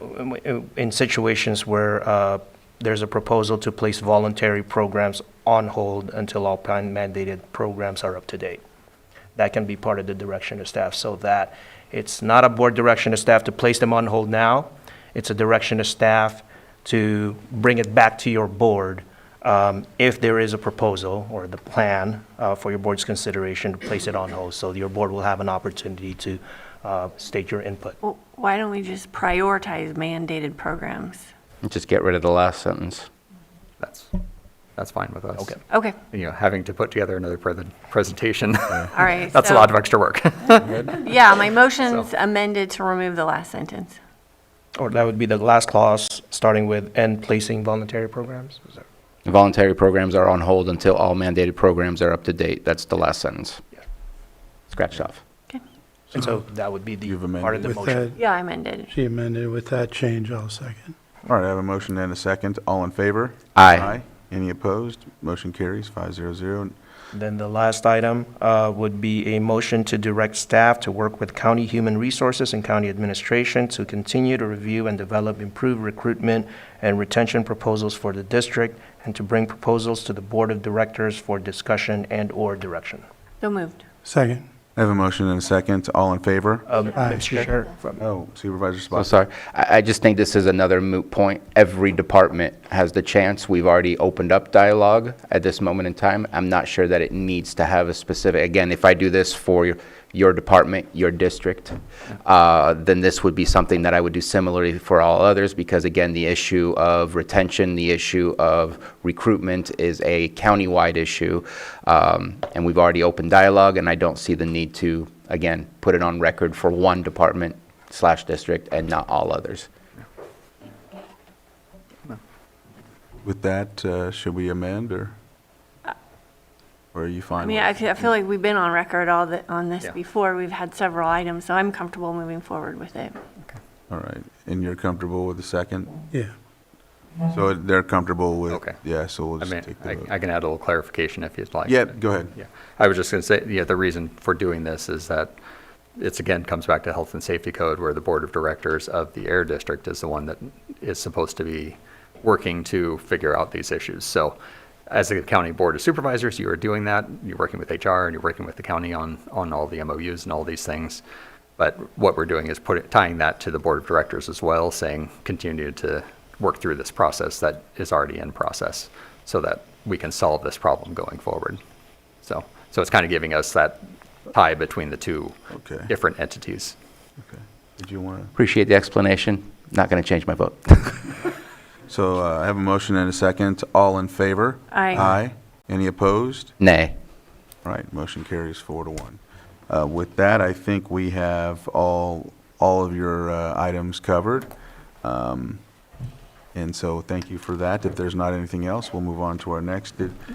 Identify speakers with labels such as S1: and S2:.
S1: um, w- in situations where uh, there's a proposal to place voluntary programs on hold until all plan mandated programs are up to date. That can be part of the direction of staff, so that it's not a board direction of staff to place them on hold now. It's a direction of staff to bring it back to your board um, if there is a proposal or the plan uh, for your board's consideration to place it on hold. So your board will have an opportunity to uh, state your input.
S2: Well, why don't we just prioritize mandated programs?
S3: Just get rid of the last sentence.
S4: That's, that's fine with us.
S1: Okay.
S2: Okay,
S4: You know, having to put together another pre- presentation,
S2: all right.
S4: that's a
S2: so-
S4: lot of extra work.
S2: Yeah, my motion's amended to remove the last sentence.
S1: Or that would be the last clause, starting with "and placing voluntary programs." Is that-
S3: Voluntary programs are on hold until all mandated programs are up to date. That's the last sentence.
S1: Yeah.
S3: Scratch it off.
S2: Okay.
S1: And so that would be the
S5: You've amended
S1: part of the
S6: Uh-huh. With
S1: motion.
S6: that,
S2: Yeah, I amended.
S6: she amended with that change, I'll second.
S5: All right, I have a motion and a second. All in favor?
S3: Aye.
S5: Any opposed? Motion carries five zero zero.
S1: Then the last item uh, would be a motion to direct staff to work with county human resources and county administration to continue to review and develop improved recruitment and retention proposals for the district, and to bring proposals to the board of directors for discussion and/or direction.
S2: So moved.
S6: Second,
S5: I have a motion and a second. All in favor?
S1: Um,
S6: Aye.
S1: Mr. Chair, from-
S5: Oh, Supervisor
S3: So
S5: Spot.
S3: sorry. I, I just think this is another moot point. Every department has the chance. We've already opened up dialogue at this moment in time. I'm not sure that it needs to have a specific, again, if I do this for your, your department, your district, uh, then this would be something that I would do similarly for all others because again, the issue of retention, the issue of recruitment is a countywide issue. Um, and we've already opened dialogue and I don't see the need to, again, put it on record for one department slash district and not all others.
S5: With that, uh, should we amend or? Or are you
S2: Uh, I
S5: fine?
S2: mean,
S5: with-
S2: I feel I feel like we've been on record all the, on this
S4: Yeah.
S2: before. We've had several items, so I'm comfortable moving forward with it.
S5: All right, and you're comfortable with the second?
S6: yeah.
S5: So they're comfortable with?
S4: Okay.
S5: Yeah, so we'll
S4: I
S5: just
S4: mean,
S5: take the
S4: I
S5: vote.
S4: I can add a little clarification if you'd like.
S5: Yeah, go ahead.
S4: Yeah, I was just going to say, yeah, the reason for doing this is that it's, again, comes back to Health and Safety Code, where the Board of Directors of the Air District is the one that is supposed to be working to figure out these issues. So as a county board of supervisors, you are doing that, you're working with HR, and you're working with the county on, on all the MOUs and all these things. But what we're doing is putting, tying that to the Board of Directors as well, saying, continue to work through this process that is already in process, so that we can solve this problem going forward. So, so it's kind of giving us that tie between the two
S5: Okay.
S4: different entities.
S5: Okay. Did you want to?
S3: Appreciate the explanation. Not going to change my vote.
S5: So uh, I have a motion and a second. All in favor?
S2: Aye.
S5: Aye. Any opposed?
S3: Nay.
S5: All right, motion carries four to one. Uh, With that, I think we have all, all of your uh, items covered. Um, And so thank you for that. If there's not anything else, we'll move on to our next. Did-